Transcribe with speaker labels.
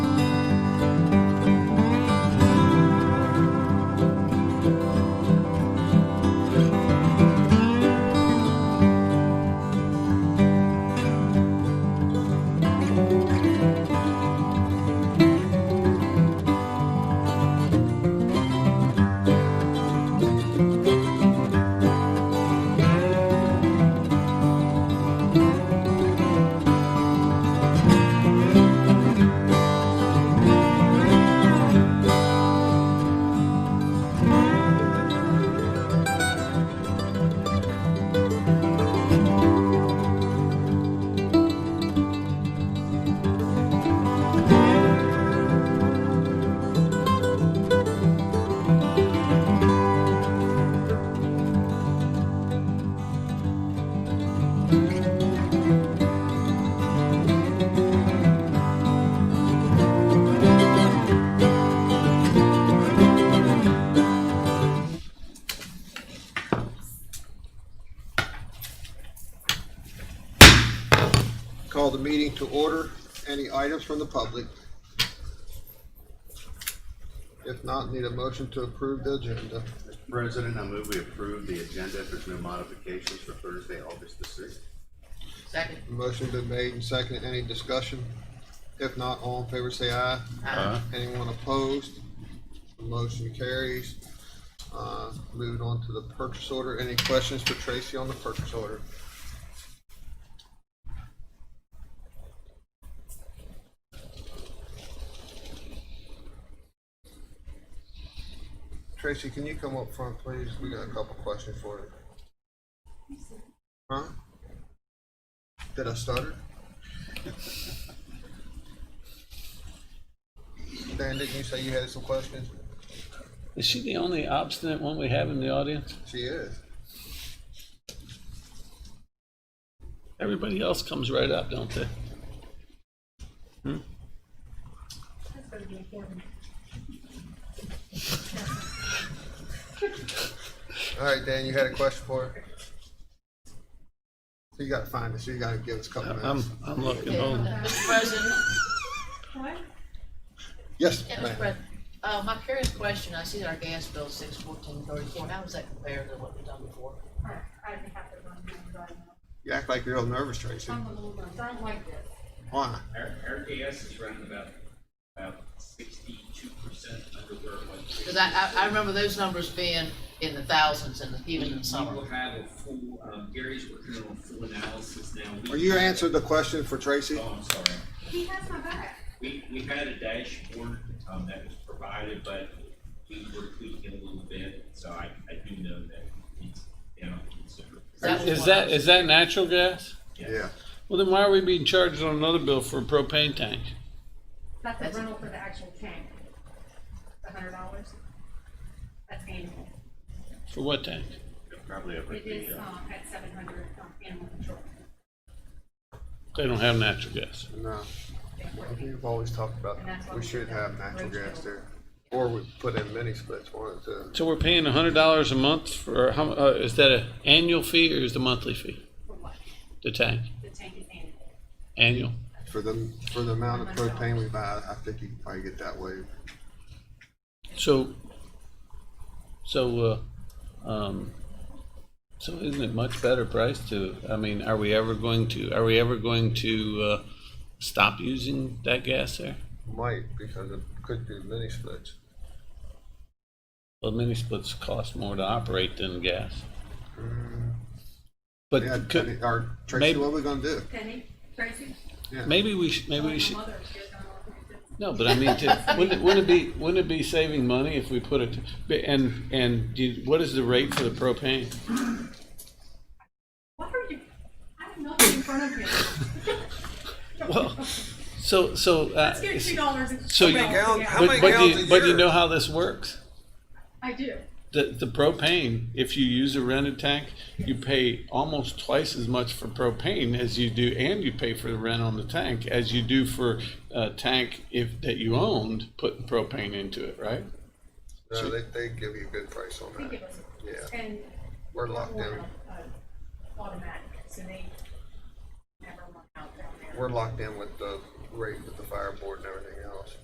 Speaker 1: to order any items from the public? If not, need a motion to approve the agenda.
Speaker 2: President, I move we approve the agenda if there's no modifications for Thursday, August the sixth.
Speaker 3: Second.
Speaker 1: Motion been made and seconded. Any discussion? If not, all in favor say aye.
Speaker 3: Aye.
Speaker 1: Anyone opposed? The Motion carries. Uh, moving on to the purchase order. Any questions for Tracy on the purchase order? Tracy, can you come up front, please? We got a couple questions for you. Huh? Did I stutter? Dan, didn't you say you had some questions?
Speaker 4: Is she the only obstinate one we have in the audience?
Speaker 1: She is.
Speaker 4: Everybody else comes right up, don't they?
Speaker 5: That's gonna be important.
Speaker 1: All right, Dan, you had a question for her? So you gotta find us, you gotta give us a couple
Speaker 4: I'm,
Speaker 1: minutes.
Speaker 4: I'm looking home.
Speaker 3: Mr. President,
Speaker 5: What?
Speaker 1: Yes,
Speaker 3: yeah, Mr.
Speaker 1: ma'am.
Speaker 3: President, uh, my curious question, I see that our gas bill is six fourteen thirty-four, how does that compare to what we've done before?
Speaker 5: I I have to run, I'm driving.
Speaker 1: You act like you're real nervous, Tracy.
Speaker 5: I'm a little nervous, I don't like this.
Speaker 1: Why?
Speaker 6: Our, our gas is around about, about sixty-two percent under where it was.
Speaker 3: Cause I, I, I remember those numbers being in the thousands and even in the
Speaker 6: We will
Speaker 3: summer.
Speaker 6: have a full, um, Gary's working on a full analysis now. We-
Speaker 1: Well, you answered the question for Tracy.
Speaker 6: Oh, I'm sorry.
Speaker 5: He has my back.
Speaker 6: We, we had a dashboard, um, that was provided, but we were tweaking a little bit, so I, I do know that it's down considerably.
Speaker 3: That was
Speaker 4: Is
Speaker 3: one
Speaker 4: that,
Speaker 3: of those-
Speaker 4: is that natural gas?
Speaker 1: Yeah,
Speaker 4: Well, then why are we being charged on another bill for a propane tank?
Speaker 5: That's
Speaker 3: That's-
Speaker 5: a rental for the actual tank. A hundred dollars. That's annual.
Speaker 4: For what tank?
Speaker 2: Probably over
Speaker 5: It is,
Speaker 2: the, uh,
Speaker 5: um, at seven hundred, um, animal control.
Speaker 4: They don't have natural gas.
Speaker 1: no,
Speaker 5: They have
Speaker 1: we
Speaker 5: fourteen.
Speaker 1: have always talked about,
Speaker 5: And that's why
Speaker 1: we
Speaker 5: we
Speaker 1: should
Speaker 5: did
Speaker 1: have
Speaker 5: that
Speaker 1: natural
Speaker 5: roadshow.
Speaker 1: gas there. Or we put in mini splits, one of the,
Speaker 4: So we're paying a hundred dollars a month for, how, mu- uh, is that a annual fee or is the monthly fee?
Speaker 5: For what?
Speaker 4: The tank,
Speaker 5: The tank is annual.
Speaker 4: annual?
Speaker 1: for the, for the amount of propane we buy, I think you can probably get that way.
Speaker 4: So, so, uh, um, so isn't it much better price to, I mean, are we ever going to, are we ever going to, uh, stop using that gas there?
Speaker 1: Might, because it could be mini splits.
Speaker 4: Well, mini splits cost more to operate than gas.
Speaker 1: Yeah,
Speaker 4: But could,
Speaker 1: or Tracy,
Speaker 4: maybe-
Speaker 1: what are we gonna do?
Speaker 5: Penny, Tracy?
Speaker 4: maybe we should, maybe
Speaker 5: My
Speaker 4: we should,
Speaker 5: mother, she has done all kinds of-
Speaker 4: no, but I mean, to- wouldn't, it- wouldn't it be, wouldn't it be saving money if we put it, but- and, and do you- what is the rate for the propane?
Speaker 5: What are you, I have nothing in front of you.
Speaker 4: Well, so, so, uh,
Speaker 5: Let's get two dollars.
Speaker 4: so you-
Speaker 1: How
Speaker 4: but,
Speaker 1: many
Speaker 4: but do
Speaker 1: gallons
Speaker 4: you,
Speaker 1: a
Speaker 4: but do you
Speaker 1: year?
Speaker 4: know how this works?
Speaker 5: I do.
Speaker 4: The, the propane, if you use a rented tank, you pay almost twice as much for propane as you do, and you pay for the rent on the tank as you do for a tank if, that you owned, putting propane into it, right?
Speaker 1: No, they, they give you a good price on
Speaker 5: They
Speaker 1: that.
Speaker 5: give us,
Speaker 1: Yeah,
Speaker 5: and
Speaker 1: we're locked
Speaker 5: we're,
Speaker 1: in,
Speaker 5: uh, automatic, so they never run out down there.
Speaker 1: we're locked in with the rate with the fire board and everything.